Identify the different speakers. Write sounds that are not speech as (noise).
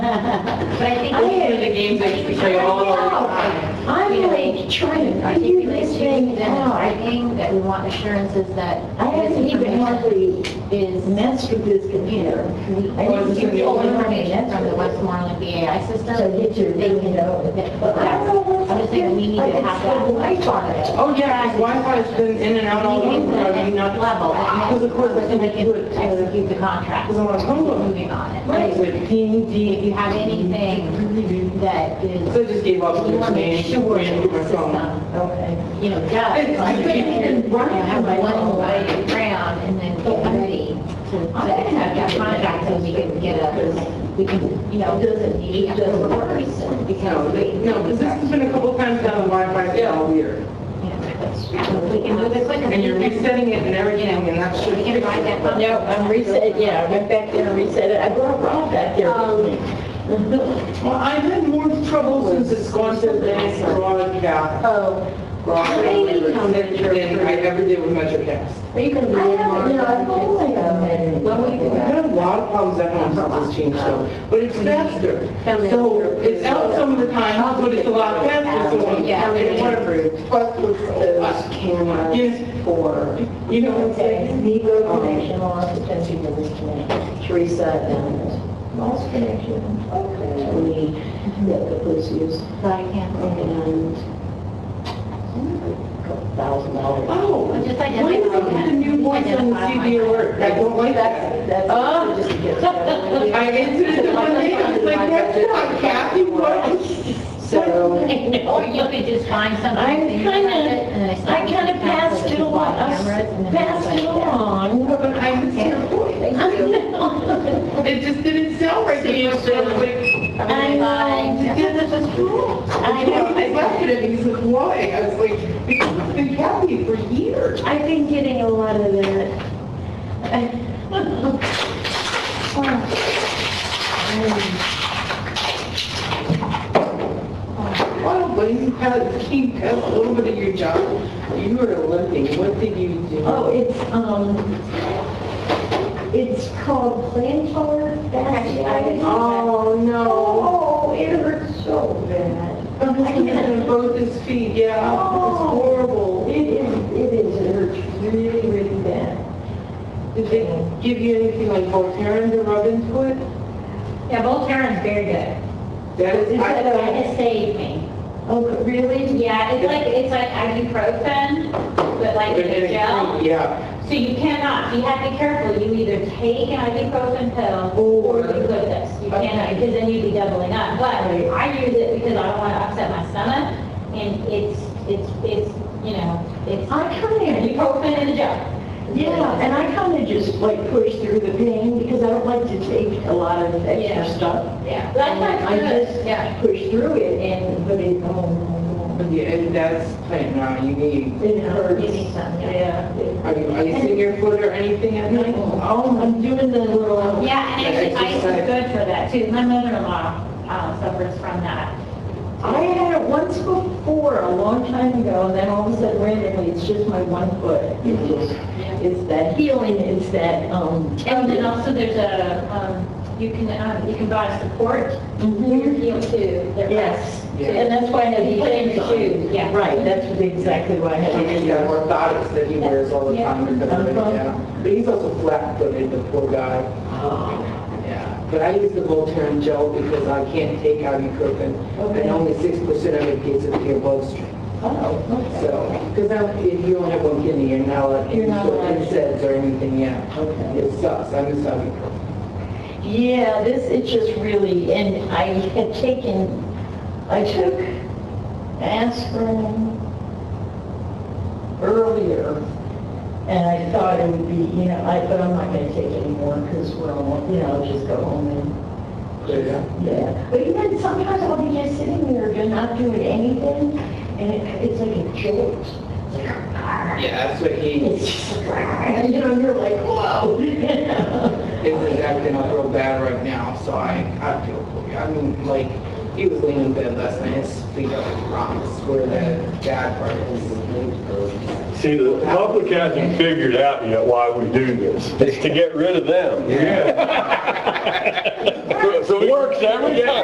Speaker 1: but I think.
Speaker 2: I mean, the games that we play all over.
Speaker 1: I'm like trying to
Speaker 3: I think
Speaker 1: figure
Speaker 3: we
Speaker 1: this
Speaker 3: should do
Speaker 1: thing
Speaker 3: that. I
Speaker 1: out.
Speaker 3: think that we want assurances that.
Speaker 1: I haven't
Speaker 3: this
Speaker 1: even
Speaker 3: information
Speaker 1: hardly
Speaker 3: Is
Speaker 1: messed with this computer. I
Speaker 2: Well,
Speaker 1: didn't
Speaker 2: this
Speaker 1: give
Speaker 2: is the
Speaker 1: you
Speaker 3: all
Speaker 1: all
Speaker 2: only
Speaker 3: information
Speaker 1: information
Speaker 3: from the Westmoreland BAI system.
Speaker 1: So get your,
Speaker 3: They
Speaker 1: you
Speaker 3: can
Speaker 1: know.
Speaker 3: that- I'm just saying we need to have that.
Speaker 1: Light on it.
Speaker 2: Oh, yeah, Wi-Fi's been in and out all
Speaker 3: We need
Speaker 2: over,
Speaker 3: to
Speaker 2: I mean, not
Speaker 3: level.
Speaker 2: level. Because of course, I
Speaker 3: So
Speaker 2: think
Speaker 3: we
Speaker 2: I do it,
Speaker 3: can execute the contract.
Speaker 2: because I'm on Tumblr.
Speaker 3: Moving on. it.
Speaker 2: Right, with Dean, Dean.
Speaker 3: If you have anything that is,
Speaker 2: So I just gave up
Speaker 3: you
Speaker 2: this
Speaker 3: want to make
Speaker 2: name,
Speaker 3: sure
Speaker 2: ran through
Speaker 3: the
Speaker 2: my phone.
Speaker 3: system,
Speaker 1: Okay.
Speaker 3: you know, does.
Speaker 2: It's- I couldn't even run it
Speaker 3: You have
Speaker 2: on my
Speaker 3: one
Speaker 2: phone.
Speaker 3: way around and then get ready to,
Speaker 1: I didn't have
Speaker 3: have
Speaker 1: to-
Speaker 3: contract so we can get a, we can, you know, do the need of the workers.
Speaker 2: No,
Speaker 3: Because we,
Speaker 2: they- no, because this has been a couple times now, the Wi-Fi's all weird.
Speaker 3: you know, we can move it quicker.
Speaker 2: And you're resetting it and everything, and that's
Speaker 3: We can write that.
Speaker 2: true.
Speaker 3: up.
Speaker 4: No, I'm reset, yeah, I went back there and reset it. I brought Rob back there.
Speaker 2: Well, I've had more trouble since it's gone to the dance broadcast.
Speaker 4: Oh,
Speaker 2: Than I ever did with MetroCast.
Speaker 4: are you gonna be
Speaker 1: I
Speaker 4: there
Speaker 1: haven't, you know, I've
Speaker 4: tomorrow?
Speaker 1: only,
Speaker 4: When
Speaker 1: um,
Speaker 4: will you be
Speaker 2: I've
Speaker 4: back?
Speaker 2: had a lot of problems at home since this change though, but it's faster. So it's out some of the time, but it's a lot faster, so I'm
Speaker 3: Yeah.
Speaker 2: wondering.
Speaker 5: Plus with those cameras
Speaker 2: Yes,
Speaker 5: for
Speaker 2: you know what I'm
Speaker 1: okay,
Speaker 2: saying?
Speaker 1: Negro connection, lost attention to this connection.
Speaker 5: Teresa and
Speaker 1: Lost connection, okay.
Speaker 5: Tony that the police use
Speaker 3: Right, yeah. (laughs)
Speaker 1: um,
Speaker 5: and a couple thousand dollars.
Speaker 2: Oh, why
Speaker 3: Well,
Speaker 2: is
Speaker 3: just like
Speaker 2: it
Speaker 3: everything
Speaker 2: the new
Speaker 3: has
Speaker 2: voice on the CD alert? I don't like that.
Speaker 5: That's
Speaker 1: Uh-huh.
Speaker 4: Oh.
Speaker 5: just to get
Speaker 1: (laughs)
Speaker 5: started.
Speaker 2: I answered (laughs) it the other day, I was like, that's not
Speaker 1: (laughs)
Speaker 2: Kathy, what?
Speaker 5: So
Speaker 3: Or you could just find something.
Speaker 4: I
Speaker 3: that you
Speaker 4: kinda-
Speaker 3: have it, and then it's
Speaker 4: I
Speaker 3: like-
Speaker 4: kinda passed it along, I s-
Speaker 3: Cameras, and then
Speaker 4: passed
Speaker 3: it's
Speaker 4: it
Speaker 3: like-
Speaker 4: along.
Speaker 1: (laughs)
Speaker 2: No, But I was your voice. It just didn't sound right to me, so I was like,
Speaker 4: I know.
Speaker 2: this is cool.
Speaker 4: I
Speaker 1: (laughs)
Speaker 4: know.
Speaker 2: I laughed at it, because like, why? I was like, because it's been Kathy for years.
Speaker 4: I've been getting a lot of that.
Speaker 2: Well, but you had, keep a little bit of your job. You were limping. What did you do?
Speaker 1: Oh, it's, um, it's called plantar fasciitis.
Speaker 2: Oh, no.
Speaker 1: Oh, it hurts so bad.
Speaker 2: My husband had both his feet, yeah. It's
Speaker 1: Oh.
Speaker 2: horrible.
Speaker 1: It is, it is, it hurts really, really bad.
Speaker 2: Did they give you anything like Voltaren to rub into it?
Speaker 3: Yeah, Voltaren's very good.
Speaker 2: That is,
Speaker 1: Is
Speaker 2: I
Speaker 1: that a-
Speaker 2: don't.
Speaker 3: It saved me.
Speaker 1: Oh, really?
Speaker 3: Yeah, it's like, it's like ibuprofen, but like in a gel.
Speaker 2: Yeah.
Speaker 3: So you cannot, you have to be careful, you either take an ibuprofen pill or you put this. You cannot, because then you'd be doubling up. But I use it because I don't want to upset my stomach and it's, it's, it's, you know, it's
Speaker 1: I kind of,
Speaker 3: ibuprofen in a gel.
Speaker 1: yeah, and I kind of just like push through the pain because I don't like to take a lot of
Speaker 3: Yeah.
Speaker 1: extra stuff.
Speaker 3: Yeah, that's
Speaker 1: I
Speaker 3: not
Speaker 1: just
Speaker 3: good, yeah.
Speaker 1: push through it and put it, oh, no, no.
Speaker 2: But yeah, and that's playing around. You need,
Speaker 1: It hurts.
Speaker 3: You need some, yeah.
Speaker 1: Yeah.
Speaker 2: are you icing your foot or anything at night?
Speaker 1: Oh, I'm doing the little,
Speaker 3: Yeah, and actually ice is good for that too. My mother-in-law uh, suffers from that.
Speaker 1: I had it once before, a long time ago, and then all of a sudden randomly, it's just my one foot. It's just- It's that healing, it's that, um,
Speaker 3: And then also there's a, um, you can, um, you can buy support for your
Speaker 1: mhm.
Speaker 3: heel too. They're-
Speaker 1: yes.
Speaker 2: Yeah.
Speaker 1: And that's why I
Speaker 3: And
Speaker 1: had
Speaker 3: you
Speaker 1: the
Speaker 3: put in
Speaker 1: things
Speaker 3: your
Speaker 1: on.
Speaker 3: shoe, yeah.
Speaker 1: Right, that's what- exactly why I
Speaker 2: And
Speaker 1: had
Speaker 2: he's got orthotics that he wears all the time because of it,
Speaker 1: Uh-huh.
Speaker 2: yeah. But he's also flat-footed, the poor guy.
Speaker 1: Uh-huh.
Speaker 2: Yeah. But I use the Voltaren gel because I can't take ibuprofen,
Speaker 1: Okay.
Speaker 2: and only six percent of it gets into your bloodstream.
Speaker 1: it. Oh, okay.
Speaker 2: So, because if you only have one kidney, you're not allowed any
Speaker 1: You're not
Speaker 2: sort
Speaker 1: allowed
Speaker 2: of
Speaker 1: to.
Speaker 2: insects or anything, yeah.
Speaker 1: Okay.
Speaker 2: It sucks, I miss ibuprofen.
Speaker 1: Yeah, this, it just really, and I had taken, I took aspirin earlier, and I thought it would be, you know, I, but I'm not gonna take any more, because we're all, you know, I'll just go home and,
Speaker 2: Yeah.
Speaker 1: yeah. But even sometimes I'll be just sitting there, just not doing anything, and it, it's like a jolt. It's like, (laughs) "Ah."
Speaker 2: Yeah, that's what he,
Speaker 1: It's just like, (laughs) "Ah," you know, you're like, whoa. (laughs)
Speaker 2: is acting up real bad right now, so I, I feel for you. I mean, like, he was laying in bed last night, his feet up like rocks, where that bad part is.
Speaker 6: See, the public hasn't figured out yet why we do this. It's to get rid of them.
Speaker 7: Yeah.
Speaker 6: (laughs) So it works every time.